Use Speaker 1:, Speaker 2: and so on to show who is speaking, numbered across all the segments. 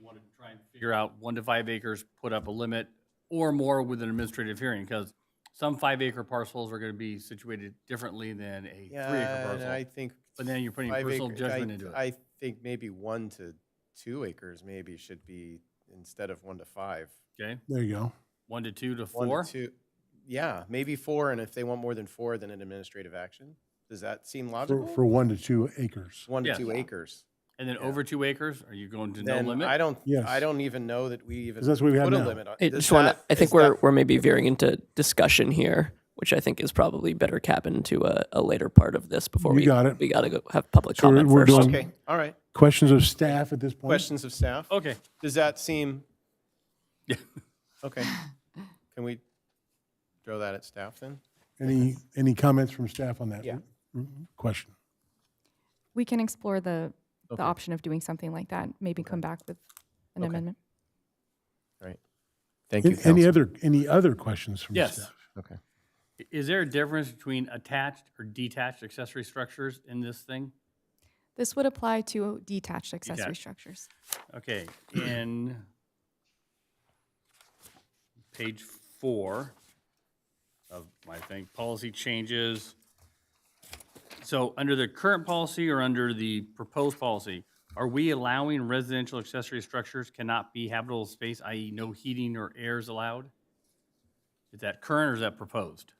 Speaker 1: want to try and figure out one to five acres, put up a limit or more with an administrative hearing, because some five acre parcels are going to be situated differently than a three acre
Speaker 2: Yeah, and I
Speaker 1: parcel.
Speaker 2: think.
Speaker 1: But then you're putting
Speaker 2: five
Speaker 1: personal
Speaker 2: acre- I-
Speaker 1: judgment into it.
Speaker 2: I think maybe one to two acres maybe should be, instead of one to five.
Speaker 1: Okay,
Speaker 3: There you go.
Speaker 1: one to two to
Speaker 2: one to
Speaker 1: four?
Speaker 2: two- Yeah, maybe four, and if they want more than four, then an administrative action. Does that seem
Speaker 3: For,
Speaker 2: logical?
Speaker 3: for one to two acres.
Speaker 2: One to
Speaker 1: Yes.
Speaker 2: two acres.
Speaker 1: And then
Speaker 2: Yeah.
Speaker 1: over two acres, are you going to no
Speaker 2: Then I
Speaker 1: limit?
Speaker 2: don't, I
Speaker 3: Yes.
Speaker 2: don't even know that we even
Speaker 3: 'Cause that's what we have
Speaker 2: put a
Speaker 3: now.
Speaker 2: limit on.
Speaker 4: I
Speaker 2: does
Speaker 4: just want to.
Speaker 2: that-
Speaker 4: I think
Speaker 2: is
Speaker 4: we're
Speaker 2: that-
Speaker 4: we're maybe veering into discussion here, which I think is probably better cabin to a, a later part of this before
Speaker 3: You
Speaker 4: we
Speaker 3: got it.
Speaker 4: We got to go have public
Speaker 3: So we're-
Speaker 4: comment
Speaker 3: we're
Speaker 4: first.
Speaker 3: doing-
Speaker 2: Okay, all right.
Speaker 3: Questions of staff at this point?
Speaker 2: Questions of staff?
Speaker 1: Okay,
Speaker 2: Does that seem?
Speaker 1: Yeah.
Speaker 2: Okay. Can we throw that at staff then?
Speaker 3: Any, any comments from staff on that?
Speaker 2: Yeah.
Speaker 3: Mm, Question.
Speaker 5: We can explore the,
Speaker 2: Okay.
Speaker 5: the option of doing something like that, maybe come back with an
Speaker 2: Okay.
Speaker 5: amendment.
Speaker 2: Thank
Speaker 3: An- Any other, any other questions from
Speaker 1: Yes.
Speaker 3: staff?
Speaker 2: Okay.
Speaker 1: I- is there a difference between attached or detached accessory structures in this thing?
Speaker 5: This would apply to detached accessory
Speaker 1: Detached.
Speaker 5: structures.
Speaker 1: Okay, in page four of my thing, policy changes. So under the current policy or under the proposed policy, are we allowing residential accessory structures cannot be habitable space, i.e. no heating or air is allowed? Is that current or is that proposed?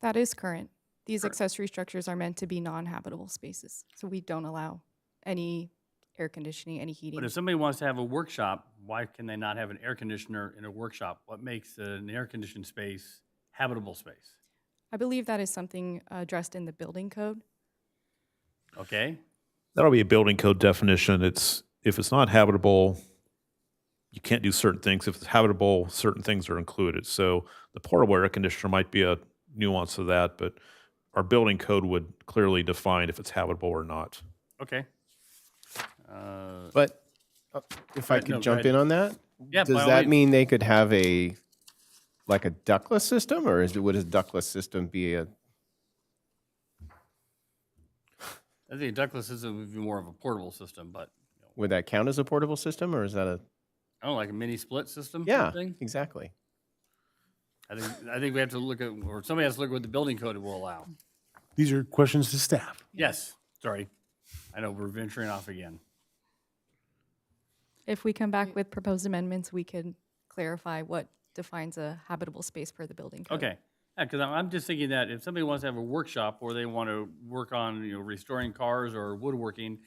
Speaker 5: That is current. These accessory structures are meant to be non-habitable spaces, so we don't allow any air conditioning, any heating.
Speaker 1: But if somebody wants to have a workshop, why can they not have an air conditioner in a workshop? What makes an air conditioned space habitable space?
Speaker 5: I believe that is something uh, addressed in the building code.
Speaker 1: Okay?
Speaker 6: That'll be a building code definition. It's, if it's not habitable, you can't do certain things. If it's habitable, certain things are included. So the portable air conditioner might be a nuance of that, but our building code would clearly define if it's habitable or not.
Speaker 1: Okay. Uh,
Speaker 2: But uh, if I
Speaker 1: Right, no,
Speaker 2: could
Speaker 1: go
Speaker 2: jump
Speaker 1: ahead.
Speaker 2: in on that?
Speaker 1: Yeah, by
Speaker 2: Does
Speaker 1: all
Speaker 2: that
Speaker 1: means.
Speaker 2: mean they could have a, like a ductless system or is, would a ductless system be a?
Speaker 1: I think ductless system would be more of a portable system, but you know,
Speaker 2: Would that count as a portable system or is that a?
Speaker 1: I don't know, like a mini split system. kind of
Speaker 2: Yeah,
Speaker 1: thing?
Speaker 2: exactly.
Speaker 1: I think I think we have to look at, or somebody has to look at what the building code will allow.
Speaker 3: These are questions to staff.
Speaker 1: Yes. Sorry, I know we're venturing off again.
Speaker 5: If we come back with proposed amendments, we could clarify what defines a habitable space per the building code.
Speaker 1: Okay. Yeah, because I'm I'm just thinking that if somebody wants to have a workshop or they want to work on you know restoring cars or woodworking,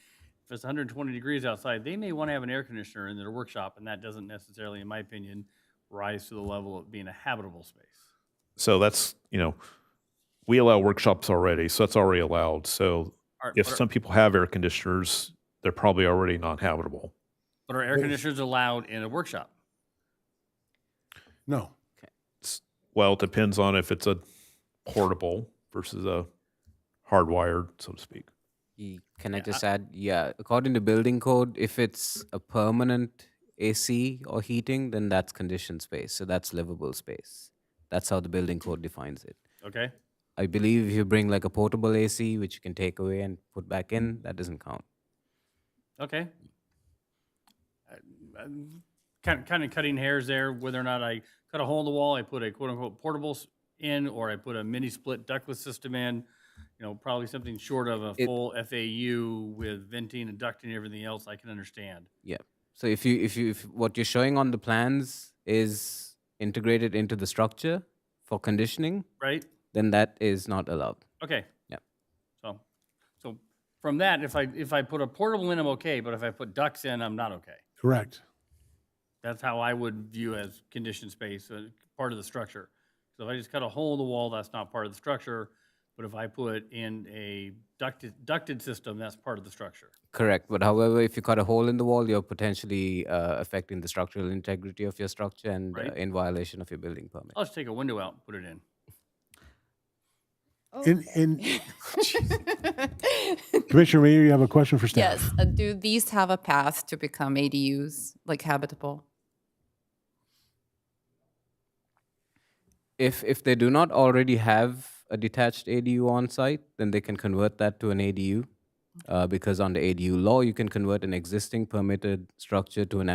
Speaker 1: if it's 120 degrees outside, they may want to have an air conditioner in their workshop, and that doesn't necessarily, in my opinion, rise to the level of being a habitable space.
Speaker 6: So that's, you know, we allow workshops already, so that's already allowed. So
Speaker 1: Are-
Speaker 6: if
Speaker 1: but are-
Speaker 6: some people have air conditioners, they're probably already not habitable.
Speaker 1: but are air conditioners allowed in a workshop?
Speaker 3: No.
Speaker 6: Well, it depends on if it's a portable versus a hardwired, so to speak.
Speaker 7: Y- Can I
Speaker 1: Yeah, I-
Speaker 7: just add? Yeah, according to building code, if it's a permanent AC or heating, then that's conditioned space. So that's livable space. That's how the building code defines it.
Speaker 1: Okay.
Speaker 7: I believe if you bring like a portable AC, which you can take away and put back in, that doesn't count.
Speaker 1: Okay. Uh, Kind, kind of cutting hairs there, whether or not I cut a hole in the wall, I put a quote-unquote portables in, or I put a mini-split ductless system in, you know, probably something short of a
Speaker 7: It-
Speaker 1: full FAU with venting and ducting and everything else, I can understand.
Speaker 7: So if you if you if what you're showing on the plans is integrated into the structure for conditioning,
Speaker 1: Right?
Speaker 7: then that is not allowed.
Speaker 1: Okay.
Speaker 7: Yep.
Speaker 1: So, so from that, if I, if I put a portable in, I'm okay, but if I put ducts in, I'm not okay.
Speaker 3: Correct.
Speaker 1: That's how I would view as conditioned space, uh, part of the structure. So if I just cut a hole in the wall, that's not part of the structure. But if I put in a ducted, ducted system, that's part of the structure.
Speaker 7: Correct. But however, if you cut a hole in the wall, you're potentially uh, affecting the structural integrity of your structure and
Speaker 1: Right.
Speaker 7: uh, in violation of your building permit.
Speaker 1: I'll just take a window out, and put it in.
Speaker 3: And, and Commissioner Mayor, you have a question for staff?
Speaker 8: Yes, uh, do these have a path to become ADUs, like habitable?
Speaker 7: If if they do not already have a detached ADU on site, then they can convert that to an ADU. Uh, because under ADU law, you can convert an existing permitted structure to an